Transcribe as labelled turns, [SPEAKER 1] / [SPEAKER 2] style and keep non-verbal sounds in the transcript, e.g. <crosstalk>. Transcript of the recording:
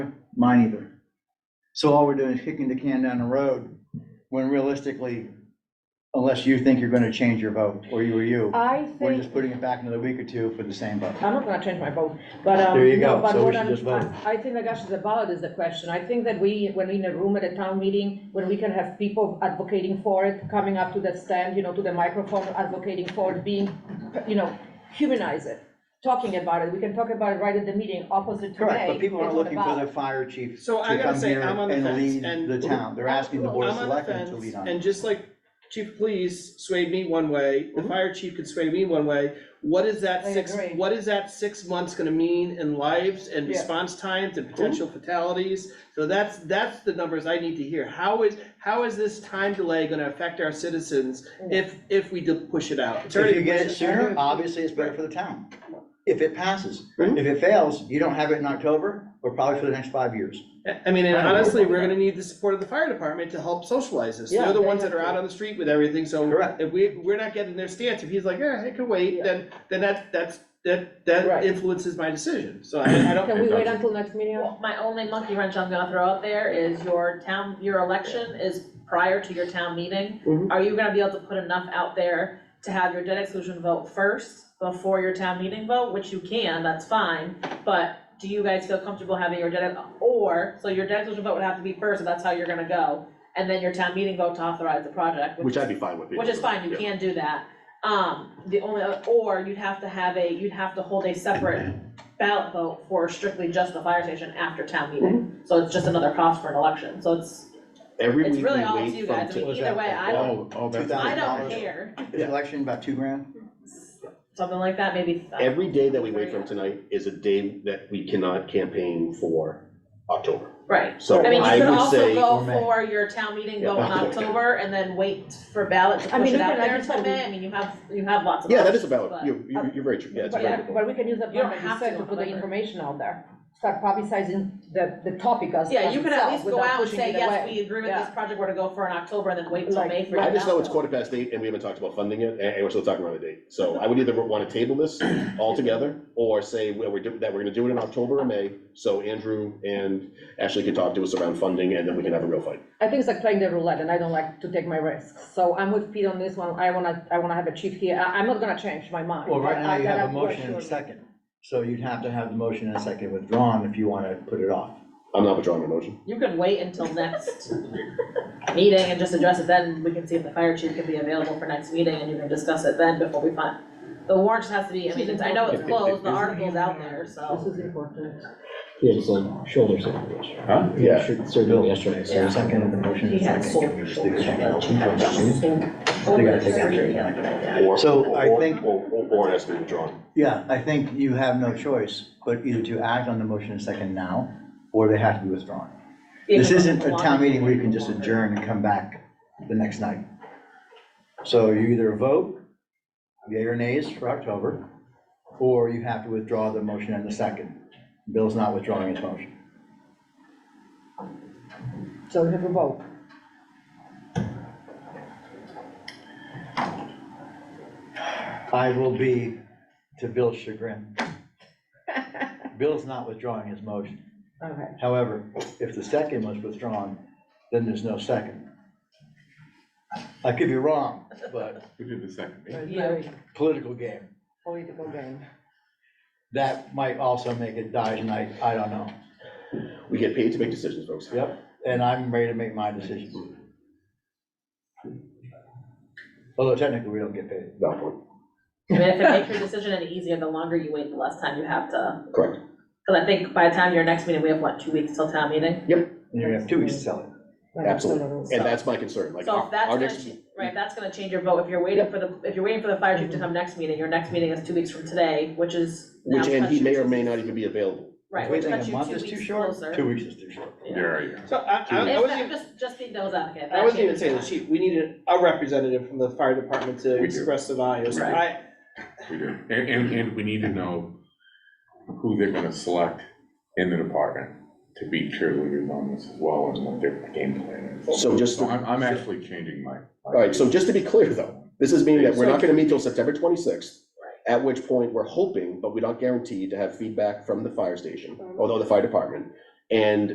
[SPEAKER 1] Mine either. So all we're doing is kicking the can down the road, when realistically, unless you think you're gonna change your vote, or you or you,
[SPEAKER 2] I
[SPEAKER 1] we're just
[SPEAKER 2] think,
[SPEAKER 1] putting it back another week or two for the same vote.
[SPEAKER 2] I'm not gonna change my vote, but, um.
[SPEAKER 1] There you
[SPEAKER 2] no,
[SPEAKER 1] go.
[SPEAKER 2] but
[SPEAKER 1] So we
[SPEAKER 2] what
[SPEAKER 1] should
[SPEAKER 2] I'm-
[SPEAKER 1] just vote.
[SPEAKER 2] I I think the gosh is about is the question. I think that we, when we in a room at a town meeting, when we can have people advocating for it, coming up to the stand, you know, to the microphone, advocating for it, being, you know, humanize it, talking about it. We can talk about it right at the meeting, opposite today.
[SPEAKER 1] Correct, but people aren't
[SPEAKER 2] It's on the
[SPEAKER 1] looking for
[SPEAKER 2] ballot.
[SPEAKER 1] their fire chief
[SPEAKER 3] So
[SPEAKER 1] to
[SPEAKER 3] I gotta
[SPEAKER 1] come
[SPEAKER 3] say,
[SPEAKER 1] here
[SPEAKER 3] I'm on the
[SPEAKER 1] and
[SPEAKER 3] fence,
[SPEAKER 1] lead
[SPEAKER 3] and
[SPEAKER 1] the town, they're asking the board of
[SPEAKER 3] I'm on the
[SPEAKER 1] selectmen to
[SPEAKER 3] fence,
[SPEAKER 1] lead on
[SPEAKER 3] and
[SPEAKER 1] it.
[SPEAKER 3] just like chief of police swayed me one way, the
[SPEAKER 1] Mhm.
[SPEAKER 3] fire chief could sway me one way, what is that
[SPEAKER 2] I
[SPEAKER 3] six,
[SPEAKER 2] agree.
[SPEAKER 3] what is that six months gonna mean in lives and
[SPEAKER 2] Yeah.
[SPEAKER 3] response times and potential
[SPEAKER 1] Mm-hmm.
[SPEAKER 3] fatalities? So that's, that's the numbers I need to hear, how is, how is this time delay gonna affect our citizens if, if we do push it out? It's
[SPEAKER 1] If
[SPEAKER 3] already
[SPEAKER 1] you get it
[SPEAKER 3] pushed-
[SPEAKER 1] sooner, obviously it's better for the town, if it passes.
[SPEAKER 3] Mhm.
[SPEAKER 1] If it fails, you don't have it in October, or probably for the next five years.
[SPEAKER 3] I- I mean, and honestly, we're gonna need the support of the fire department to help socialize this,
[SPEAKER 2] Yeah,
[SPEAKER 3] they're the
[SPEAKER 2] they
[SPEAKER 3] ones that
[SPEAKER 2] have
[SPEAKER 3] are
[SPEAKER 2] to.
[SPEAKER 3] out on the street with everything, so.
[SPEAKER 1] Correct.
[SPEAKER 3] If we, we're not getting their stance, if he's like, yeah, it could wait,
[SPEAKER 2] Yeah.
[SPEAKER 3] then, then that, that's, that,
[SPEAKER 2] Right.
[SPEAKER 3] that influences my decision, so I, I don't.
[SPEAKER 2] Can we wait until next meeting?
[SPEAKER 4] Well, My only monkey wrench I'm gonna throw out there is your town, your election is prior to your town meeting.
[SPEAKER 5] Mm-hmm.
[SPEAKER 3] Mhm.
[SPEAKER 4] Are you gonna be able to put enough out there to have your debt exclusion vote first before your town meeting vote, which you can, that's fine. But do you guys feel comfortable having your debt, or, so your debt exclusion vote would have to be first, and that's how you're gonna go. And then your town meeting vote to authorize the project,
[SPEAKER 5] Which
[SPEAKER 4] which
[SPEAKER 5] I'd
[SPEAKER 4] is,
[SPEAKER 5] be fine with.
[SPEAKER 4] which is fine, you
[SPEAKER 5] Yeah.
[SPEAKER 4] can do that. Um, the only, other- or you'd have to have a, you'd have to hold a separate ballot vote for strictly just the fire station after town meeting.
[SPEAKER 2] Mm-hmm.
[SPEAKER 4] So it's just another cost for an election, so it's,
[SPEAKER 5] Every
[SPEAKER 4] it's
[SPEAKER 5] week
[SPEAKER 4] really
[SPEAKER 5] we
[SPEAKER 4] all up to
[SPEAKER 5] wait
[SPEAKER 4] you
[SPEAKER 5] from.
[SPEAKER 4] guys, I
[SPEAKER 5] t-
[SPEAKER 4] mean, either way, I don't,
[SPEAKER 5] Oh, oh, that's.
[SPEAKER 4] I
[SPEAKER 1] $2,000.
[SPEAKER 4] don't care,
[SPEAKER 1] Is election about two grand?
[SPEAKER 4] something like that, maybe. uh,
[SPEAKER 5] Every day that we wait from tonight is a day that we cannot campaign for October.
[SPEAKER 4] Right,
[SPEAKER 5] So
[SPEAKER 4] I mean,
[SPEAKER 5] I
[SPEAKER 4] you could
[SPEAKER 5] would
[SPEAKER 4] also
[SPEAKER 5] say,
[SPEAKER 4] go
[SPEAKER 1] Or May.
[SPEAKER 4] for your town meeting vote in
[SPEAKER 5] Yeah.
[SPEAKER 4] October and then wait for ballot to
[SPEAKER 2] I mean,
[SPEAKER 4] push
[SPEAKER 2] you
[SPEAKER 4] it out
[SPEAKER 2] could- I
[SPEAKER 4] there
[SPEAKER 2] just
[SPEAKER 4] until
[SPEAKER 2] told you-
[SPEAKER 4] May, I mean, you have, you have lots of options.
[SPEAKER 5] yeah, that is a ballot.
[SPEAKER 4] but-
[SPEAKER 5] You're, you're, you're very true. Yeah, it's a
[SPEAKER 2] But,
[SPEAKER 5] very.
[SPEAKER 2] but we can use the
[SPEAKER 4] You don't
[SPEAKER 2] part that you
[SPEAKER 4] have
[SPEAKER 2] said
[SPEAKER 4] to
[SPEAKER 2] to
[SPEAKER 4] on
[SPEAKER 2] put
[SPEAKER 4] the
[SPEAKER 2] the
[SPEAKER 4] ballot.
[SPEAKER 2] information out there. Start publicizing the, the topic as,
[SPEAKER 4] Yeah,
[SPEAKER 2] as
[SPEAKER 4] you could at
[SPEAKER 2] itself
[SPEAKER 4] least go
[SPEAKER 2] without
[SPEAKER 4] out and
[SPEAKER 2] pushing
[SPEAKER 4] say,
[SPEAKER 2] it
[SPEAKER 4] yes,
[SPEAKER 2] away.
[SPEAKER 4] we agree with
[SPEAKER 2] Yeah.
[SPEAKER 4] this project, we're to go for in October and then wait till
[SPEAKER 2] Like-
[SPEAKER 4] May for your
[SPEAKER 2] like-
[SPEAKER 5] I just know it's
[SPEAKER 4] ballot.
[SPEAKER 5] quarter past eight and we haven't talked about funding it, and, and we're still talking about a date. So I would either want to table
[SPEAKER 4] <coughs>
[SPEAKER 5] this altogether or say well, we're, do- that we're gonna do it in October or May. So Andrew and Ashley can talk to us around funding and then we can have a real fight.
[SPEAKER 2] I think it's like playing the roulette and I don't like to take my risks. So I'm with Pete on this one. I wanna, I wanna have a chief here. I, I'm not gonna change my mind.
[SPEAKER 1] Well, right
[SPEAKER 2] but
[SPEAKER 1] now
[SPEAKER 2] I-
[SPEAKER 1] you
[SPEAKER 2] that
[SPEAKER 1] have a
[SPEAKER 2] I'm
[SPEAKER 1] motion and a
[SPEAKER 2] reassured.
[SPEAKER 1] second, so you'd have to have the motion and a second withdrawn if you wanna put it off.
[SPEAKER 5] I'm not withdrawing my motion.
[SPEAKER 4] You can wait until next <laughs> meeting and just address it then, we can see if the fire chief can be available for next meeting, and you can discuss it then before we find. The warrant just has to be, I mean, it's- I know it's closed, the article's out there,
[SPEAKER 6] This
[SPEAKER 4] so.
[SPEAKER 6] is important.
[SPEAKER 7] Yeah, it's like shoulder surgery.
[SPEAKER 5] Huh? Yeah.
[SPEAKER 7] Should- Surgery yesterday,
[SPEAKER 1] So
[SPEAKER 7] so.
[SPEAKER 1] the second and the motion and a second. can we just do it? They gotta take action.
[SPEAKER 5] Or-
[SPEAKER 1] So I
[SPEAKER 5] or-
[SPEAKER 1] think-
[SPEAKER 5] Or, or- or it has to be withdrawn.
[SPEAKER 1] Yeah, I think you have no choice, but either to act on the motion and second now, or they have to be withdrawn. This isn't a town meeting where you can just adjourn and come back the next night. So you either vote yea or nays for October, or you have to withdraw the motion and the second. Bill's not withdrawing his motion.
[SPEAKER 2] So we have a vote.
[SPEAKER 1] I will be to Bill's chagrin. Bill's not withdrawing his motion.
[SPEAKER 2] Okay.
[SPEAKER 1] However, if the second was withdrawn, then there's no second. I could be wrong, but
[SPEAKER 8] We did the second meeting.
[SPEAKER 2] It's
[SPEAKER 4] Yeah.
[SPEAKER 2] very
[SPEAKER 1] political game.
[SPEAKER 2] Political game.
[SPEAKER 1] That might also make it die tonight, I don't know.
[SPEAKER 5] We get paid to make decisions, folks.
[SPEAKER 1] Yep, and I'm ready to make my decisions. Although technically, we don't get paid.
[SPEAKER 5] Valid point.
[SPEAKER 4] I mean, if it makes your decision any easier, the longer you wait, the less time you have to,
[SPEAKER 5] Correct.
[SPEAKER 4] cause I think by the time your next meeting, we have what, two weeks till town meeting?
[SPEAKER 1] And you have two weeks to sell it.
[SPEAKER 5] Absolutely. And that's my concern, like,
[SPEAKER 4] So if
[SPEAKER 5] our
[SPEAKER 4] that's
[SPEAKER 5] our
[SPEAKER 4] gonna,
[SPEAKER 5] next,
[SPEAKER 4] ch- right, if that's gonna change your vote, if you're waiting for the, if you're waiting for the fire chief to
[SPEAKER 1] Mm-hmm.
[SPEAKER 4] come next meeting, your next meeting is two weeks from today, which is. now
[SPEAKER 5] which, and
[SPEAKER 4] cuts
[SPEAKER 5] he
[SPEAKER 4] you
[SPEAKER 5] may
[SPEAKER 4] two-
[SPEAKER 5] or may not even be available.
[SPEAKER 4] Right,
[SPEAKER 1] We
[SPEAKER 4] which
[SPEAKER 1] think
[SPEAKER 4] cuts
[SPEAKER 1] a
[SPEAKER 4] you
[SPEAKER 1] month
[SPEAKER 4] two
[SPEAKER 1] is too
[SPEAKER 4] weeks
[SPEAKER 1] short.
[SPEAKER 4] closer.
[SPEAKER 1] Two weeks is too short.
[SPEAKER 4] Yeah.
[SPEAKER 8] There
[SPEAKER 3] So I, I- I
[SPEAKER 4] If
[SPEAKER 3] wasn't
[SPEAKER 4] that,
[SPEAKER 3] even,
[SPEAKER 4] just, just be those advocate.
[SPEAKER 3] I wasn't even saying the chief, we needed a representative from the fire department to
[SPEAKER 8] We do.
[SPEAKER 3] express the values,
[SPEAKER 4] Right.
[SPEAKER 3] I,
[SPEAKER 8] We do. And, and, and we need to know who they're gonna select in the department to be cheerleaders on this as well and what their game plan is.
[SPEAKER 5] So just,
[SPEAKER 8] So
[SPEAKER 5] all
[SPEAKER 8] I'm, I'm actually changing my. All
[SPEAKER 5] right, so just to be clear, though, this is meaning that we're not gonna meet till September twenty-sixth, at
[SPEAKER 4] Mm-hmm.
[SPEAKER 5] which point we're hoping, but we're not guaranteed to have feedback from the fire station, although the fire department, And